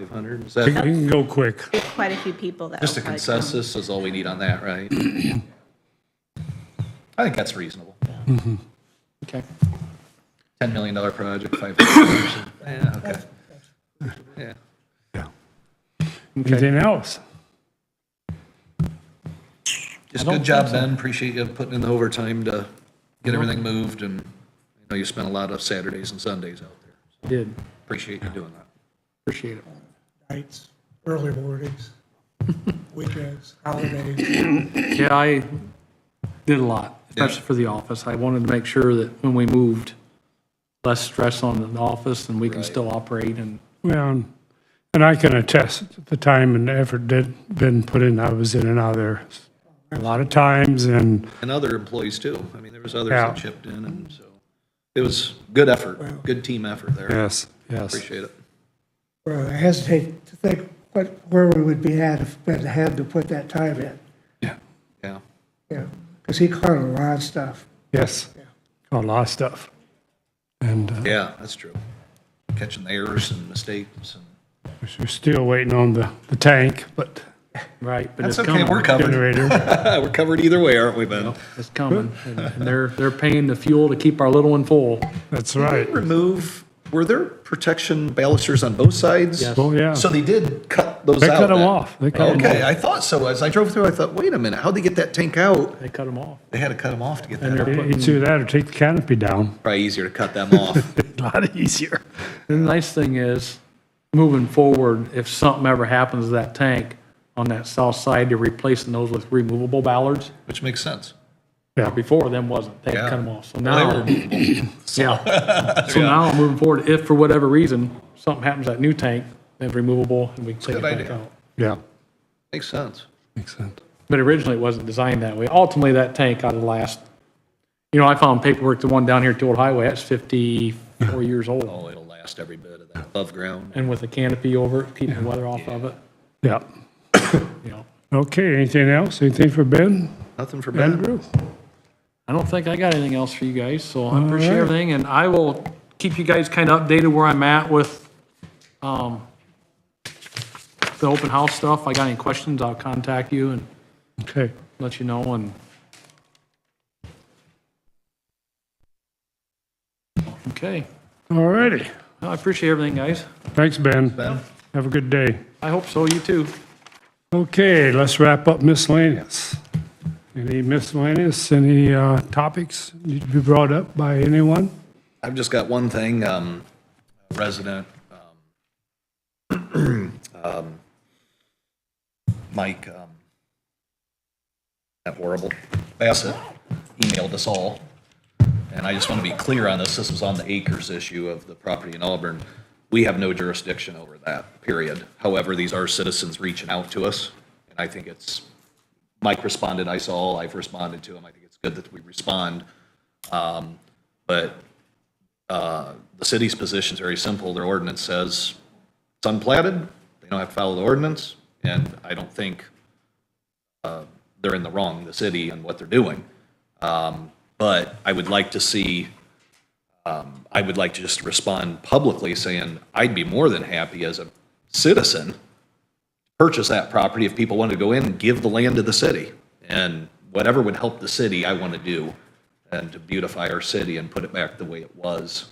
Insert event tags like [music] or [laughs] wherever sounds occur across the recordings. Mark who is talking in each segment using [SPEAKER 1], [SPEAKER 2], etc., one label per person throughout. [SPEAKER 1] 500? Is
[SPEAKER 2] We
[SPEAKER 1] that
[SPEAKER 2] can go quick.
[SPEAKER 3] There's quite a few people that.
[SPEAKER 1] just a
[SPEAKER 3] would like to-
[SPEAKER 1] consensus is all we need on that, right?
[SPEAKER 2] [clears throat]
[SPEAKER 1] I think that's reasonable.
[SPEAKER 4] Okay.
[SPEAKER 1] $10 million project,
[SPEAKER 2] [coughs]
[SPEAKER 1] 500. Yeah, okay. Yeah.
[SPEAKER 2] Anything else?
[SPEAKER 1] Just good job, Ben. Appreciate you putting in the overtime to get everything moved and I know you spent a lot of Saturdays and Sundays out there.
[SPEAKER 4] Did,
[SPEAKER 1] Appreciate you doing that.
[SPEAKER 4] appreciate it.
[SPEAKER 5] nights, early mornings, [laughs] weekends, holidays.
[SPEAKER 4] Yeah, I did a lot, especially for the office. I wanted to make sure that when we moved, less stress on the office and we can still operate and
[SPEAKER 2] Well, and I can attest, the time and effort that been put in, I was in and out of there a lot of times, and
[SPEAKER 1] And other employees too. I mean, there was others that
[SPEAKER 2] Yeah.
[SPEAKER 1] chipped in and so it was good effort, good team effort there.
[SPEAKER 2] yes, yes.
[SPEAKER 1] Appreciate it.
[SPEAKER 5] Well, I hesitate to think what, where we would be at if Ben had to put that time in,
[SPEAKER 1] Yeah.
[SPEAKER 5] Yeah, 'cause because he caught a lot of stuff.
[SPEAKER 2] Yes, a lot of stuff. And uh,
[SPEAKER 1] Yeah, that's true. Catching the errors and mistakes and
[SPEAKER 2] we're still waiting on the, the tank, but
[SPEAKER 4] Right, but
[SPEAKER 1] that's
[SPEAKER 4] it's
[SPEAKER 1] okay.
[SPEAKER 4] coming.
[SPEAKER 1] We're covered.
[SPEAKER 2] generator,
[SPEAKER 1] [laughs] We're covered either way, aren't we, Ben?
[SPEAKER 4] It's
[SPEAKER 1] [laughs]
[SPEAKER 4] coming. And and they're, they're paying the fuel to keep our little one full.
[SPEAKER 2] that's [laughs] right.
[SPEAKER 1] Remove, were there protection balusters on both sides?
[SPEAKER 4] Yes.
[SPEAKER 2] Oh, yeah.
[SPEAKER 1] So they did cut those out?
[SPEAKER 2] They cut them
[SPEAKER 1] then?
[SPEAKER 2] off. They cut 'em
[SPEAKER 1] Okay, I thought so. As I drove through, I thought, wait a minute, how'd they get that tank out?
[SPEAKER 4] They cut them off.
[SPEAKER 1] They had to cut them off to get
[SPEAKER 4] And
[SPEAKER 1] that
[SPEAKER 4] they're
[SPEAKER 1] out.
[SPEAKER 4] putting-
[SPEAKER 2] Either that or take the canopy down.
[SPEAKER 1] Probably easier to cut them off.
[SPEAKER 2] [laughs]
[SPEAKER 1] [laughs]
[SPEAKER 2] A lot easier.
[SPEAKER 4] The nice thing is, moving forward, if something ever happens to that tank on that south side, they're replacing those with removable ballards.
[SPEAKER 1] Which makes sense.
[SPEAKER 4] Before them wasn't. They
[SPEAKER 1] Yeah.
[SPEAKER 4] cut them off. So
[SPEAKER 1] They were [clears throat]
[SPEAKER 4] now, [coughs]
[SPEAKER 1] removable.
[SPEAKER 4] yeah. So now, moving forward, if for whatever reason, something happens to that new tank, they're removable and we can take it
[SPEAKER 1] Good
[SPEAKER 4] back
[SPEAKER 1] idea.
[SPEAKER 4] out.
[SPEAKER 2] Yeah,
[SPEAKER 1] Makes sense.
[SPEAKER 2] makes sense.
[SPEAKER 4] But originally, it wasn't designed that way. Ultimately, that tank ought to last, you know, I found paperwork, the one down here at Old Highway, that's 54 years old.
[SPEAKER 1] Oh, it'll last every bit of that above ground.
[SPEAKER 4] And with a canopy over it, keeping the weather off of it,
[SPEAKER 2] Yeah.
[SPEAKER 4] you know.
[SPEAKER 2] Okay, anything else? Anything for Ben?
[SPEAKER 1] Nothing for Ben.
[SPEAKER 2] Andrew?
[SPEAKER 4] I don't think I got anything else for you guys, so I appreciate
[SPEAKER 2] right.
[SPEAKER 4] everything, and I will keep you guys kind of updated where I'm at with, um, the open house stuff. If I got any questions, I'll contact you and
[SPEAKER 2] Okay.
[SPEAKER 4] let you know, and. Okay,
[SPEAKER 2] All righty.
[SPEAKER 4] Well, I appreciate everything, guys.
[SPEAKER 2] Thanks, Ben.
[SPEAKER 1] Ben?
[SPEAKER 2] Have a good day.
[SPEAKER 4] I hope so, you too.
[SPEAKER 2] Okay, let's wrap up miscellaneous. Any miscellaneous, any uh, topics need to be brought up by anyone?
[SPEAKER 1] I've just got one thing, um, resident, um, um, [clears throat] Mike, um, that horrible, Bassett emailed us all. And I just want to be clear on this, this was on the acres issue of the property in Auburn. We have no jurisdiction over that, period. However, these are citizens reaching out to us, and I think it's, Mike responded, I saw, I've responded to him, I think it's good that we respond. Um, But uh, the city's position is very simple. Their ordinance says it's unplatted, they don't have to follow the ordinance, and I don't think uh, they're in the wrong, the city, and what they're doing. Um, But I would like to see, um, I would like to just respond publicly saying, I'd be more than happy as a citizen purchase that property if people wanted to go in and give the land to the city. And whatever would help the city, I want to do, and to beautify our city and put it back the way it was.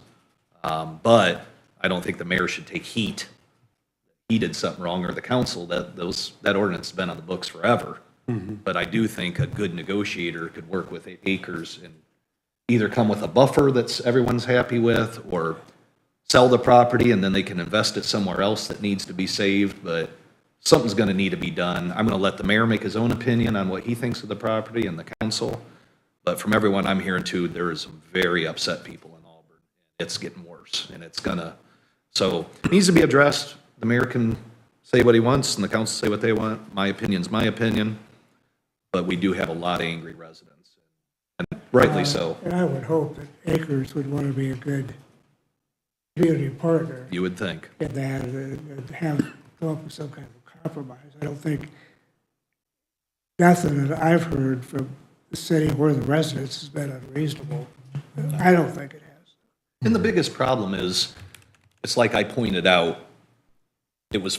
[SPEAKER 1] Um, But I don't think the mayor should take heat. He did something wrong, or the council, that those, that ordinance has been on the books forever. But I do think a good negotiator could work with acres and either come with a buffer that's everyone's happy with, or sell the property and then they can invest it somewhere else that needs to be saved, but something's gonna need to be done. I'm gonna let the mayor make his own opinion on what he thinks of the property and the council. But from everyone I'm hearing too, there is some very upset people in Auburn. It's getting worse and it's gonna, so it needs to be addressed. The mayor can say what he wants and the council say what they want. My opinion's my opinion. But we do have a lot of angry residents, and rightly so.
[SPEAKER 5] And I would hope that Acres would want to be a good community partner
[SPEAKER 1] You would think.
[SPEAKER 5] in that and and have, come up with some kind of compromise. I don't think, nothing that I've heard from the city or the residents has been unreasonable. I don't think it has.
[SPEAKER 1] And the biggest problem is, it's like I pointed out, it was